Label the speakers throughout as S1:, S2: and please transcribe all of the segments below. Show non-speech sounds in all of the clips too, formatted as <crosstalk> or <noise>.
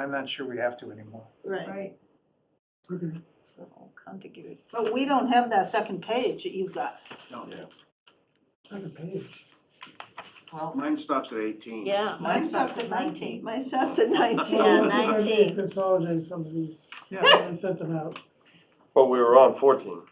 S1: I'm not sure we have to anymore.
S2: Right,
S3: Right,
S4: So it'll come together.
S2: but we don't have that second page that you've got.
S1: Second
S4: <laughs>
S1: page.
S2: Well,
S5: Mine stops at eighteen.
S4: Yeah.
S2: mine stops at nineteen.
S4: Mine stops at
S5: Yeah,
S4: nineteen.
S6: I need to
S4: 19.
S6: Consolidate some of these,
S1: Yeah.
S6: I sent them out.
S7: But we were on fourteen.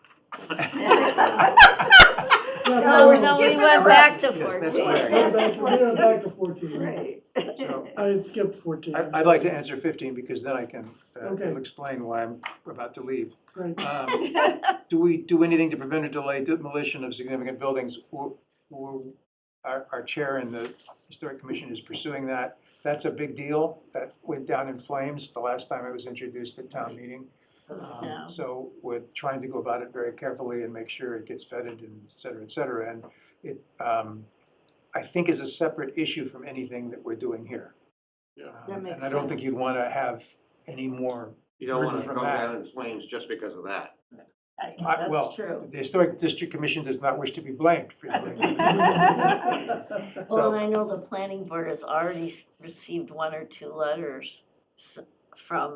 S2: <laughs>
S4: <laughs> No,
S3: we're
S4: no, we
S3: skipping
S4: went back to
S1: Yes, that's
S6: We <laughs> went
S4: fourteen.
S6: back- we went back to fourteen,
S4: <laughs>
S2: Right.
S1: So-
S6: I had skipped fourteen.
S1: I- I'd like to answer fifteen because then I can, uh,
S6: Okay.
S1: it'll explain why I'm about to leave. <laughs>
S6: Right,
S1: Um, Do we do anything to prevent or delay demolition of significant buildings? Or- or Our, our chair in the Historic Commission is pursuing that. That's a big deal. That went down in flames the last time it was introduced at town meeting. Um,
S4: Yeah.
S1: So we're trying to go about it very carefully and make sure it gets vetted and et cetera, et cetera. And it, um, I think is a separate issue from anything that we're doing here.
S5: Yeah.
S1: Um,
S2: That
S1: And
S2: makes
S1: I don't think
S2: sense.
S1: you'd want to have any more,
S5: You don't wanna
S1: Written
S5: go
S1: from that.
S5: down in flames just because of that.
S1: I- well,
S4: That's true.
S1: the Historic District Commission does not wish to be blamed
S2: <laughs>
S1: for doing that.
S4: Well,
S1: So-
S4: and I know the planning board has already s- received one or two letters s- from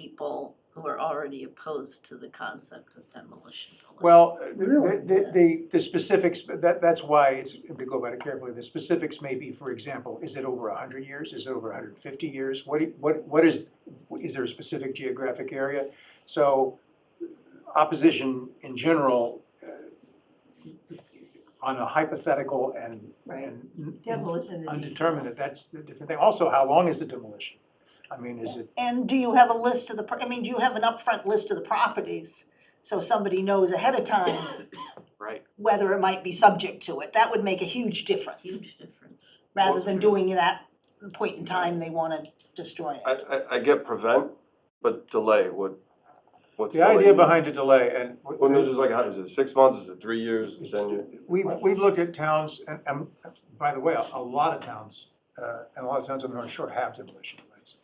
S4: people who are already opposed to the concept of demolition. delay.
S1: Well, uh,
S6: Really?
S1: the, the- the, the specifics, that, that's why it's, if we go about it carefully, the specifics may be, for example, is it over hundred years, is it over hundred and fifty years? What, do- what, what is, is there a specific geographic area? So opposition in general, uh, on a hypothetical and,
S3: right.
S1: and
S3: Devil is in the
S1: undetermined,
S3: details.
S1: that's the different thing. Also, how long is the demolition? I mean, is it,
S2: <laughs> And do you have a list of the, pro- I mean, do you have an upfront list of the properties? So somebody knows ahead
S4: <coughs>
S2: of time
S5: Right.
S2: whether it might be subject to it. That would make a huge difference,
S4: Huge difference.
S2: rather than doing it at the point in time they wanna destroy it.
S7: I, I, I get prevent, but delay, what, what's
S1: the idea
S7: delay?
S1: behind a delay and.
S7: Well, no, just like, how- is it six months, is it three years, is it ten years?
S1: We've, we've looked at towns, and, and by the way, a a lot of towns, uh, and a lot of towns on the North Shore have demolition delays.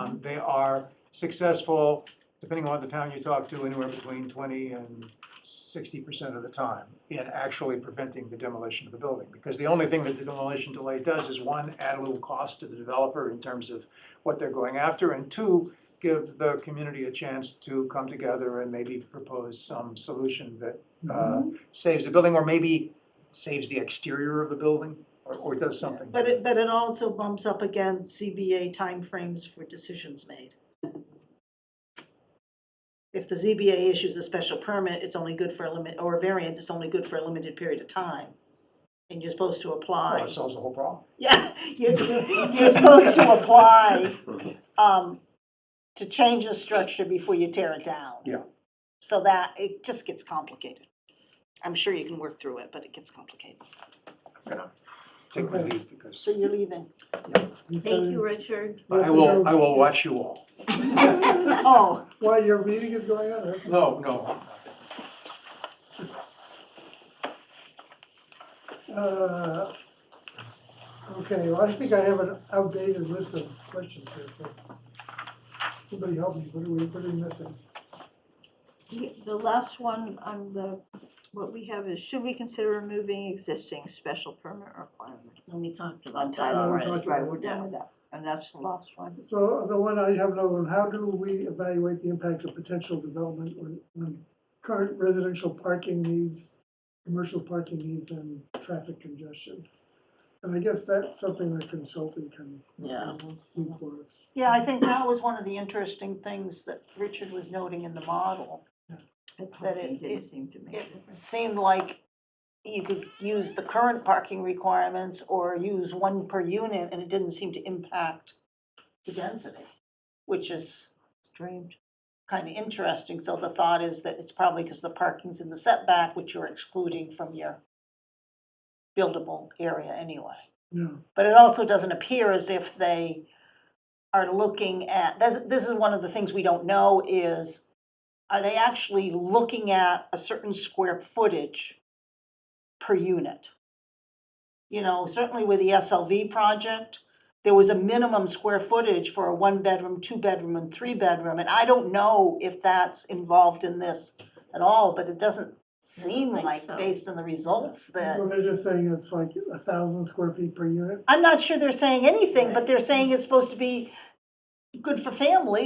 S1: Um, They are successful, depending on the town you talk to, anywhere between twenty and sixty percent of the time in actually preventing the demolition of the building. Because the only thing that the demolition delay does is, one, add a little cost to the developer in terms of what they're going after, and two, give the community a chance to come together and maybe propose some solution that uh,
S2: Mm-hmm.
S1: saves the building, or maybe saves the exterior of the building, or, or does something.
S2: But it, but it also bumps up against ZBA timeframes for decisions made. If the ZBA issues a special permit, it's only good for a limit, or a variance, it's only good for a limited period of time. And you're supposed to
S1: Well,
S2: apply,
S1: it solves the whole problem.
S2: <laughs> yeah, you're, you're supposed to apply, um, to change the structure before you tear it down.
S1: Yeah.
S2: So that, it just gets complicated. I'm sure you can work through it, but it gets complicated.
S1: I'm gonna take my leave because
S2: So you're leaving?
S6: <laughs> these
S4: Thank
S6: guys-
S4: you, Richard.
S6: have
S1: I
S6: to
S1: will,
S6: go-
S1: I will watch you all.
S6: <laughs>
S2: Oh.
S6: While your meeting is going on, huh?
S1: No, no.
S6: Uh, Okay, well, I think I have an outdated list of questions here, so. Somebody help me, what are we, what are we missing?
S3: The last one on the, what we have is, should we consider removing existing special permit requirements?
S4: And we talked
S3: On
S4: about that
S3: title,
S6: we're
S4: already.
S6: talking-
S3: right, we're done with that, and that's the last one.
S6: So the one, I have another one, how do we evaluate the impact of potential development on, on current residential parking needs, commercial parking needs and traffic congestion? And I guess that's something that consulting can
S4: Yeah.
S6: do for us.
S2: Yeah, I think that was one of the interesting things that Richard was noting in the model. But it-
S3: It didn't
S2: it-
S3: seem to make a
S2: It
S3: difference.
S2: seemed like you could use the current parking requirements or use one per unit, and it didn't seem to impact the density, which is
S3: Strange.
S2: kind of interesting. So the thought is that it's probably because the parking's in the setback, which you're excluding from your buildable area anyway.
S6: Yeah,
S2: But it also doesn't appear as if they are looking at, this, this is one of the things we don't know is, are they actually looking at a certain square footage per unit? You know, certainly with the SLV project, there was a minimum square footage for a one-bedroom, two-bedroom, and three-bedroom, and I don't know if that's involved in this at all, but it doesn't seem
S4: think
S2: like,
S4: so.
S2: based on the results, that
S6: so they're just saying it's like a thousand square feet per unit?
S2: I'm not sure they're saying anything, but they're saying it's supposed to be good for families.